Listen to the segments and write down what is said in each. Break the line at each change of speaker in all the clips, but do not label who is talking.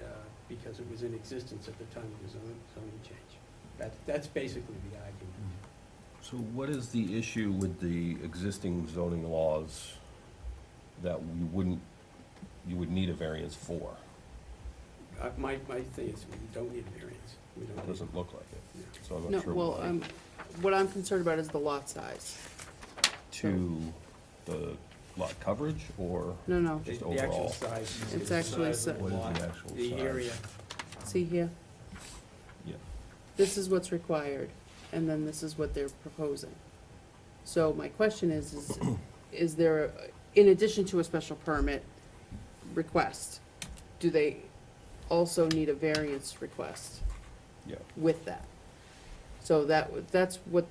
uh, because it was in existence at the time of the zoning, zoning change. That, that's basically the argument.
So what is the issue with the existing zoning laws that we wouldn't, you would need a variance for?
Uh, My, my thing is, we don't need a variance. We
It
don't need,
doesn't look like it,
yeah.
so I'm
No,
not sure.
well,
why.
um, what I'm concerned about is the lot size.
To the lot coverage or?
No, no,
Just
The- the actual
overall.
size.
It's
the
actually
size of the
si-
What is
lot,
the actual
The
size?
area,
see here,
Yeah,
this is what's required, and then this is what they're proposing. So my question is, is, is there, in addition to a special permit request, do they also need a variance request
yeah.
with that? So that, w- that's what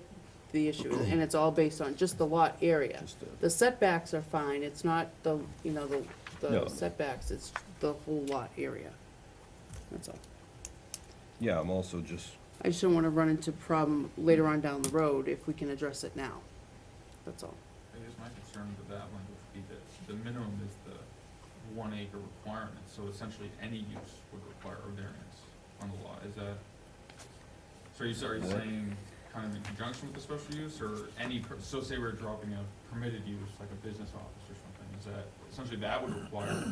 the issue is, and it's all based on just the lot area.
Just the-
The setbacks are fine, it's not the, you know, the,
No.
the setbacks, it's the whole lot area. That's all.
Yeah, I'm also just,
I just don't wanna run into problem later on down the road if we can address it now. That's all.
I guess my concern with that one would be that the minimum is the one acre requirement, so essentially any use would require a variance on the law, is that? So are you, are you
What?
saying kind of in conjunction with the special use, or any, per- so say we're dropping a permitted use, like a business office or something, is that, essentially that would require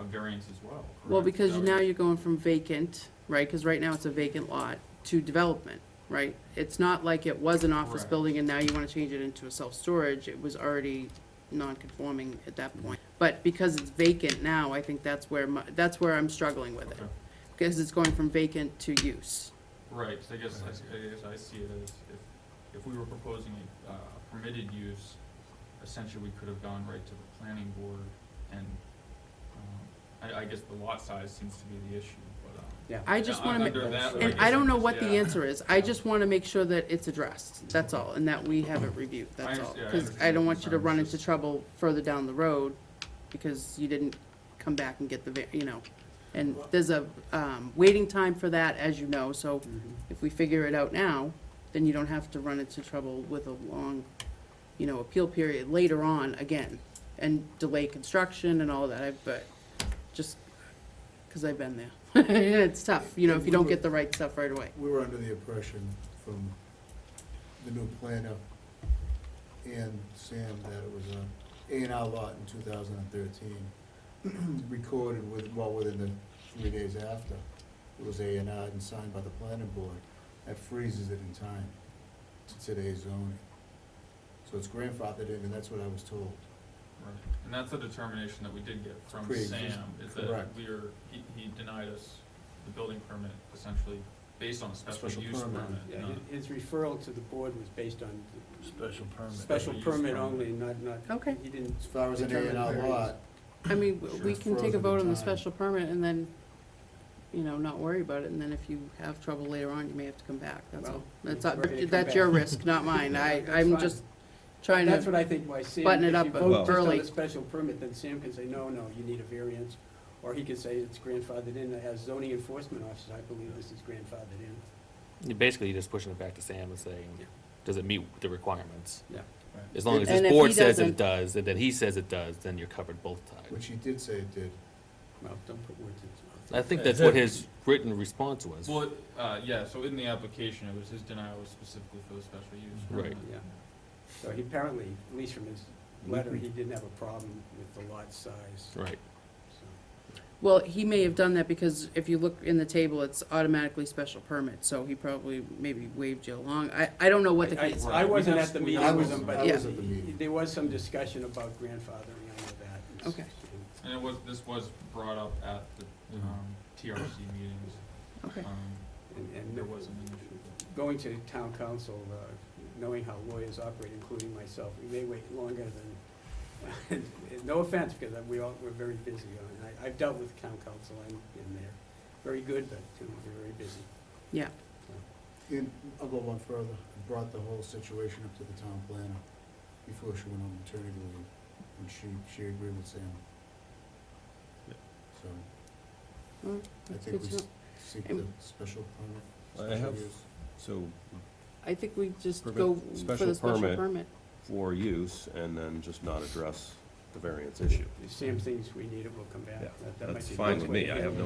a variance as well, correct?
Well, because
That would-
now you're going from vacant, right, cause right now it's a vacant lot, to development, right? It's not like it was an office
Correct.
building and now you wanna change it into a self-storage, it was already non-conforming at that point. But because it's vacant now, I think that's where my, that's where I'm struggling with it.
Okay.
Because it's going from vacant to use.
Right, so I guess, I s- I guess I see it as if, if we were proposing a uh, permitted use, essentially we could have gone right to the planning board and, um, I, I guess the lot size seems to be the issue, but, um.
yeah.
I just
yeah,
wanna ma-
Under that.
And I don't know what the
yeah.
answer is, I just wanna make sure that it's addressed, that's all, and that we have it reviewed, that's all.
understand- yeah, I
Cause I
understand
don't
your
want you to
concerns,
run
just-
into trouble further down the road, because you didn't come back and get the, va- you know. And there's a, um, waiting time for that, as you know, so
Mhm.
if we figure it out now, then you don't have to run into trouble with a long, you know, appeal period later on again, and delay construction and all that, I- but just, cause I've been there. It's tough, you know, if you don't get the right stuff right away.
We were under the impression from the new planner and Sam that it was a A and R lot in two thousand and thirteen, recorded with, well, within the three days after. It was A and R and signed by the planning board. That freezes it in time to today's zoning. So it's grandfathered in, and that's what I was told.
Right. And that's the determination that we did get from
Pre-existing,
Sam, is that
correct.
we are, he, he denied us the building permit essentially based on a special
Special
use
permit,
permit,
Yeah,
not-
hi- his referral to the board was based on
Special permit.
special
Special use
permit
permit.
only, not, not,
Okay,
he didn't,
As far as an A and R
Determined
lot,
I mean, w- we
Sure.
can take a
Frozen
vote on the
time.
special permit and then, you know, not worry about it, and then if you have trouble later on, you may have to come back, that's all.
Well,
That's,
we're
up-
ready to come
that's your
back.
risk, not mine, I,
That's
I'm
fine.
just trying
that's
to,
what I think why Sam, if
button
you
it up
vote just on
early.
the special permit, then Sam can say, no, no, you need a variance. Or he could say it's grandfathered in, as zoning enforcement officer, I believe this is grandfathered in.
You're Basically, just pushing it back to Sam and saying,
Yeah.
does it meet the requirements?
Yeah.
As long as
And if
this
he
board says
doesn't-
it does, and then he says it does, then you're covered both times.
which he did say it did.
Well, don't put words in his mouth.
I think that's what his written response was.
Well, uh, yeah, so in the application, it was his denial was specifically for the special use.
Right.
Yeah. So he apparently, at least from his letter, he didn't have a problem with the lot size.
Right,
so.
well, he may have done that because if you look in the table, it's automatically special permit, so he probably maybe waved you along. I, I don't know what the
I- I-
case,
I wasn't at the
We have-
meeting with him,
I
but
was- I
he-
was at the meeting.
there was some discussion about grandfathering under that. It's-
Okay.
And it was, this was brought up at the, um, TRC meetings,
okay.
um,
And,
and
and
there wasn't an issue.
going to town council, uh, knowing how lawyers operate, including myself, we may wait longer than, and no offense, because we all, we're very busy on, I, I've dealt with town council and, and they're very good, but, you know, they're very busy.
Yeah.
And I'll go one further, I brought the whole situation up to the town planner before she went on maternity leave, and she, she agreed with Sam.
Yeah.
So,
Alright,
I
that's good
think we
to know.
s- seek the
And-
special permit.
I
special
have-
use.
so
I think we just
Permit-
go for
special
the special
permit.
permit.
for use and then just not address the variance issue.
If Sam thinks we need it, we'll come back.
Yeah,
That- that might
that's
be the
fine
best
with
way
me.
to
I
do
have
it.
no